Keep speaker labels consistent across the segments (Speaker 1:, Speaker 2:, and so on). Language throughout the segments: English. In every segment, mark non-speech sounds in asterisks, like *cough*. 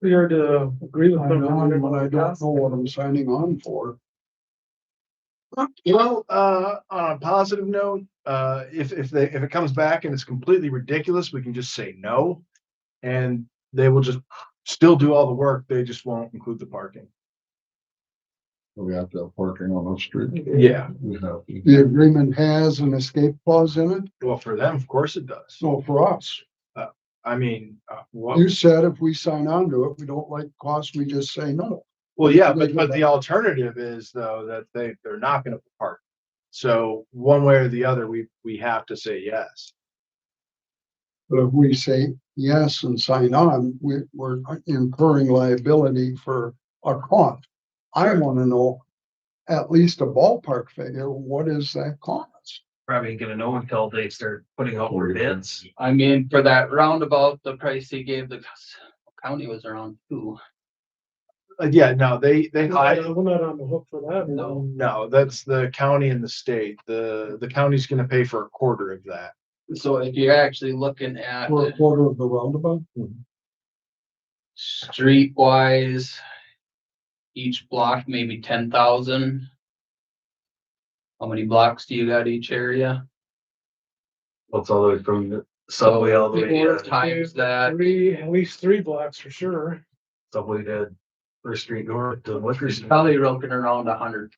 Speaker 1: We are to agree with
Speaker 2: I'm
Speaker 1: them.
Speaker 2: on, but I don't know what I'm signing on for.
Speaker 3: You know, uh, on a positive note, uh, if, if they, if it comes back and it's completely ridiculous, we can just say no. And they will just still do all the work. They just won't include the parking.
Speaker 4: We have to have parking on the street.
Speaker 3: Yeah.
Speaker 4: We have to.
Speaker 2: The agreement has an escape clause in it,
Speaker 3: Well, for them, of course it does.
Speaker 2: so for us,
Speaker 3: I mean, uh, what,
Speaker 2: you said if we sign on to it, we don't like costs, we just say no.
Speaker 3: well, yeah,
Speaker 2: you
Speaker 3: but,
Speaker 2: do
Speaker 3: but
Speaker 2: that.
Speaker 3: *laughs* the alternative is though, that they, they're not gonna park. So one way or the other, we, we have to say yes.
Speaker 2: But if we say yes and sign on, we, we're incurring liability for a cost. I wanna know at least a ballpark figure, what is that cost?
Speaker 5: probably gonna know until they start putting out their bids.
Speaker 6: I mean, for that roundabout, the price he gave the county was around two.
Speaker 3: Uh, yeah, no, they, they
Speaker 1: We're
Speaker 3: hide,
Speaker 1: not on the hook for that.
Speaker 6: No.
Speaker 3: no, that's the county and the state. The, the county's gonna pay for a quarter of that.
Speaker 6: So if you're actually looking at
Speaker 2: For a
Speaker 6: the
Speaker 2: quarter of the roundabout?
Speaker 6: streetwise, each block maybe ten thousand. How many blocks do you got each area?
Speaker 5: That's all the way from the subway all the way
Speaker 1: people
Speaker 5: to
Speaker 1: are-
Speaker 6: Times that,
Speaker 1: Three, at least three blocks for sure.
Speaker 5: subway to First Street North to Woodford.
Speaker 6: there's
Speaker 5: Street.
Speaker 6: probably looking around a hundred.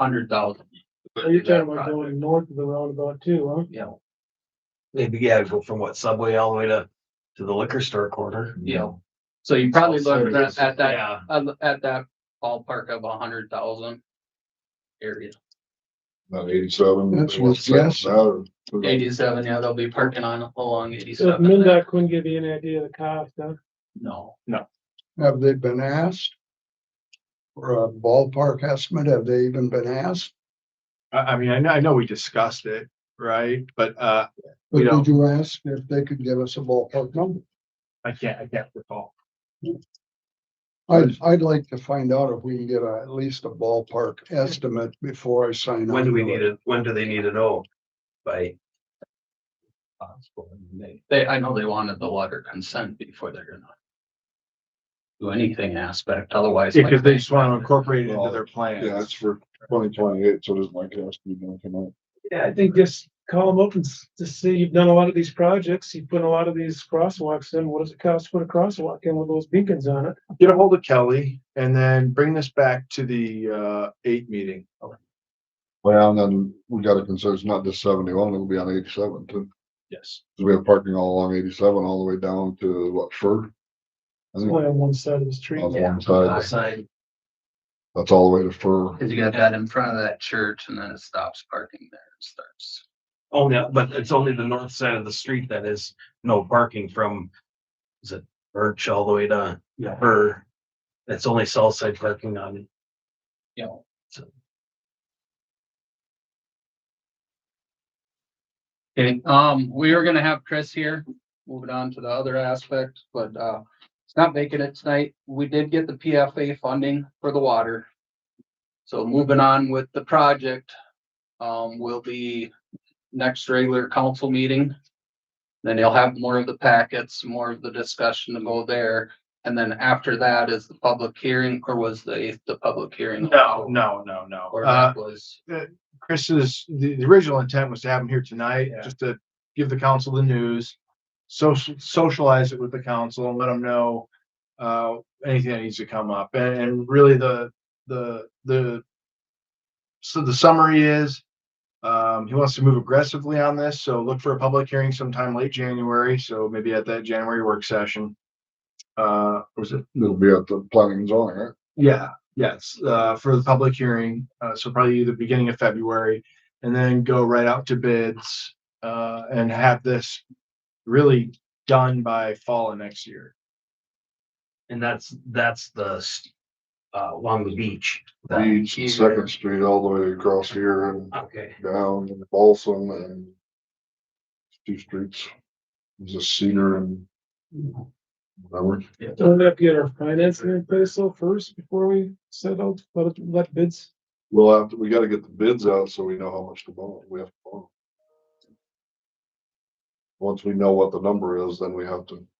Speaker 6: Hundred thousand.
Speaker 1: Are you talking about going north of the roundabout too, huh?
Speaker 6: Yeah,
Speaker 5: Maybe, yeah, go from what subway all the way to, to the liquor store corner.
Speaker 6: yeah. So you probably
Speaker 5: So
Speaker 6: look
Speaker 5: it's-
Speaker 6: at, at that
Speaker 5: Yeah,
Speaker 6: at, at that ballpark of a hundred thousand area.
Speaker 4: About eighty-seven.
Speaker 2: That's
Speaker 4: they want
Speaker 2: what's
Speaker 4: to send
Speaker 2: yes.
Speaker 4: us out.
Speaker 6: Eighty-seven, yeah, they'll be parking on along
Speaker 1: So if
Speaker 6: eighty-seven.
Speaker 1: MinDOT couldn't give you any idea of the cost, huh?
Speaker 6: No,
Speaker 2: Have they been asked? For a ballpark estimate, have they even been asked?
Speaker 3: I, I mean, I know, I know we discussed it, right? But, uh, We
Speaker 2: But
Speaker 3: don't.
Speaker 2: did you ask if they could give us a ballpark number?
Speaker 3: I can't, I can't recall.
Speaker 2: I'd, I'd like to find out if we can get a- at least a ballpark estimate before I sign on.
Speaker 5: when do we
Speaker 2: to
Speaker 5: need
Speaker 2: it.
Speaker 5: it? When do they need to know? By? Possible, May.
Speaker 6: they, I know they wanted the water consent before they're gonna. Do anything aspect, otherwise.
Speaker 3: Yeah, cause they just wanna incorporate it into their
Speaker 4: Yeah,
Speaker 3: plans.
Speaker 4: it's for twenty twenty-eight, so does my cost be gonna come out?
Speaker 1: Yeah, I think just call them up and s- to see, you've done a lot of these projects, you've put a lot of these crosswalks in, what does it cost to put a crosswalk in with those beacons on it?
Speaker 3: Get a hold of Kelly and then bring this back to the, uh, eight meeting.
Speaker 4: Well, and then we gotta consider it's not just seventy-one, it'll be on eighty-seven too.
Speaker 3: Yes.
Speaker 4: 'Cause we have parking all along eighty-seven, all the way down to what, Fur? I
Speaker 1: It's
Speaker 4: think
Speaker 1: only on one side of the street.
Speaker 4: On the
Speaker 6: Yeah.
Speaker 4: one side,
Speaker 5: Outside,
Speaker 4: that's all the way to Fur.
Speaker 6: Cause you got that in front of that church and then it stops parking there and starts.
Speaker 5: oh, no, but it's only the north side of the street that is no parking from. Is it Birch all the way to, yeah, her? That's only south side parking on
Speaker 6: You know, so. Okay, um, we are gonna have Chris here, moving on to the other aspect, but, uh, it's not making it tonight. We did get the PFA funding for the water. So moving on with the project, um, will be next regular council meeting. Then you'll have more of the packets, more of the discussion to go there. And then after that is the public hearing, or was the, the public hearing?
Speaker 3: No, no, no, no.
Speaker 6: Or
Speaker 3: Uh,
Speaker 6: that was.
Speaker 3: Chris's, the, the original intent was to have him here tonight,
Speaker 5: Yeah.
Speaker 3: just to give the council the news. Social, socialize it with the council and let them know, uh, anything that needs to come up. And, and really the, the, the. So the summary is, um, he wants to move aggressively on this, so look for a public hearing sometime late January, so maybe at that January work session. Uh, was it
Speaker 4: It'll be at the planning and zoning, right?
Speaker 3: yeah, yes, uh, for the public hearing, uh, so probably the beginning of February, and then go right out to bids, uh, and have this really done by fall of next year.
Speaker 5: And that's, that's the, s- uh, along the beach.
Speaker 4: Beach, and
Speaker 6: either.
Speaker 4: Second Street, all the way across here and
Speaker 5: Okay,
Speaker 4: down and Balsam and two streets. There's a Cedar and whatever.
Speaker 1: Don't we have to get our financing in place though first before we settle, let, it- let bids?
Speaker 4: We'll have, to- we gotta get the bids out so we know how much to borrow, we have to borrow. Once we know what the number is, then we have to